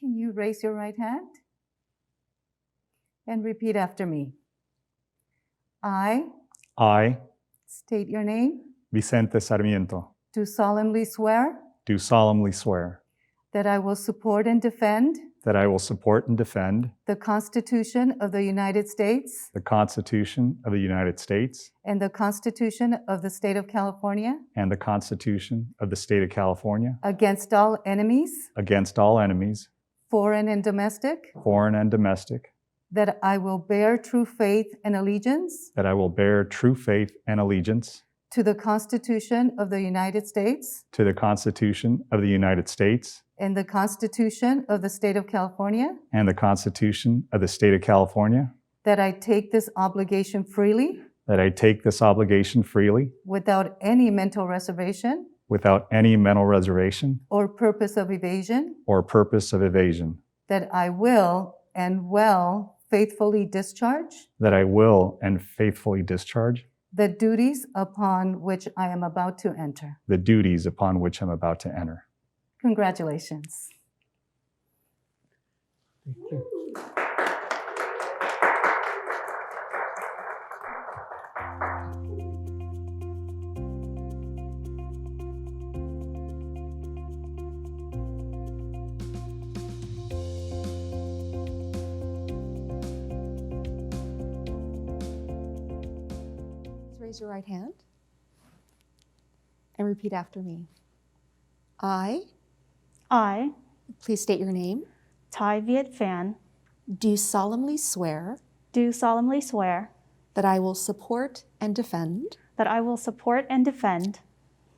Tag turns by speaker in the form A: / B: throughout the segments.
A: you raise your right hand and repeat after me. I
B: I,
A: state your name,
B: Vicente Sarmiento,
A: do solemnly swear
B: do solemnly swear
A: that I will support and defend
B: that I will support and defend
A: the Constitution of the United States
B: the Constitution of the United States
A: and the Constitution of the State of California
B: and the Constitution of the State of California
A: against all enemies,
B: against all enemies,
A: foreign and domestic,
B: foreign and domestic,
A: that I will bear true faith and allegiance
B: that I will bear true faith and allegiance
A: to the Constitution of the United States
B: to the Constitution of the United States
A: and the Constitution of the State of California,
B: and the Constitution of the State of California,
A: that I take this obligation freely
B: that I take this obligation freely
A: without any mental reservation
B: without any mental reservation
A: or purpose of evasion,
B: or purpose of evasion,
A: that I will and will faithfully discharge
B: that I will and faithfully discharge
A: the duties upon which I am about to enter.
B: the duties upon which I'm about to enter.
A: Congratulations.
C: Please raise your right hand and repeat after me. I,
D: I,
C: please state your name,
D: Tai Viet Phan,
C: do solemnly swear
D: do solemnly swear
C: that I will support and defend
D: that I will support and defend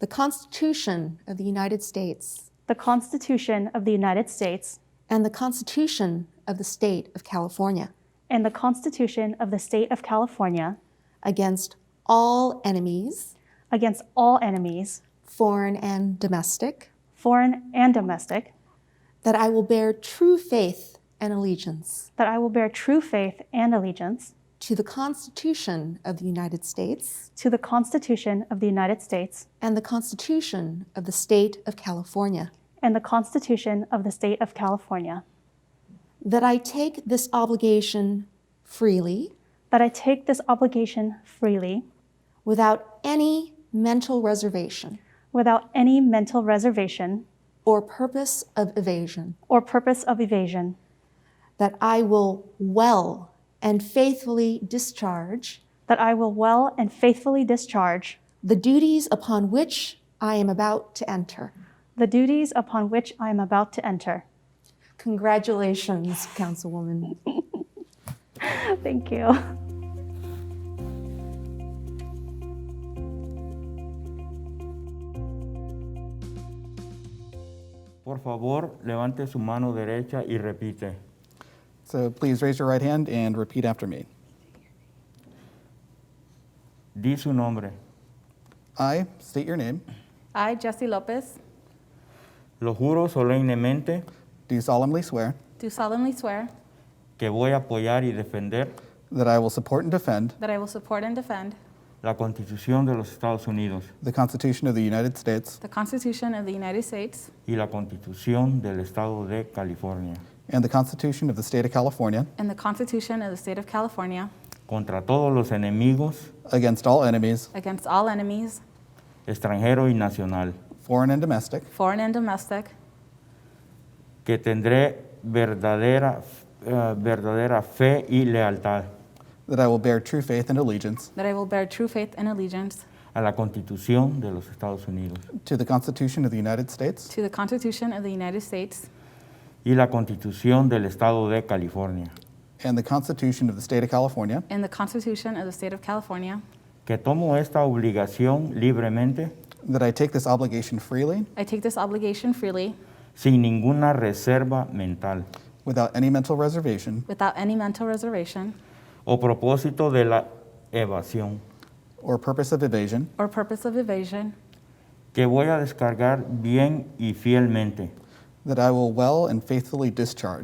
C: the Constitution of the United States
D: the Constitution of the United States
C: and the Constitution of the State of California
D: and the Constitution of the State of California
C: against all enemies,
D: against all enemies,
C: foreign and domestic,
D: foreign and domestic,
C: that I will bear true faith and allegiance
D: that I will bear true faith and allegiance
C: to the Constitution of the United States
D: to the Constitution of the United States
C: and the Constitution of the State of California.
D: and the Constitution of the State of California,
C: That I take this obligation freely
D: that I take this obligation freely
C: without any mental reservation
D: without any mental reservation
C: or purpose of evasion.
D: or purpose of evasion,
C: That I will well and faithfully discharge
D: that I will well and faithfully discharge
C: the duties upon which I am about to enter.
D: the duties upon which I am about to enter.
C: Congratulations, Councilwoman.
D: Thank you.
E: Por favor, levante su mano derecha y repite.
F: So please raise your right hand and repeat after me.
E: Di su nombre.
F: I state your name,
G: I, Jesse Lopez,
E: Lo juro solemnemente
F: do solemnly swear
G: do solemnly swear
E: que voy a apoyar y defender
F: that I will support and defend
G: that I will support and defend
E: la Constitución de los Estados Unidos
F: the Constitution of the United States
G: the Constitution of the United States
E: y la Constitución del Estado de California
F: and the Constitution of the State of California
G: and the Constitution of the State of California
E: contra todos los enemigos,
F: against all enemies,
G: against all enemies,
E: extranjero y nacional,
F: foreign and domestic,
G: foreign and domestic,
E: que tendré verdadera, eh, verdadera fe y lealtad
F: that I will bear true faith and allegiance
G: that I will bear true faith and allegiance
E: a la Constitución de los Estados Unidos
F: to the Constitution of the United States
G: to the Constitution of the United States
E: y la Constitución del Estado de California.
F: and the Constitution of the State of California,
G: and the Constitution of the State of California.
E: que tomo esta obligación libremente,
F: that I take this obligation freely
G: I take this obligation freely
E: sin ninguna reserva mental
F: without any mental reservation
G: without any mental reservation
E: o propósito de la evasión,
F: or purpose of evasion,
G: or purpose of evasion,
E: que voy a descargar bien y fielmente
F: that I will well and faithfully discharge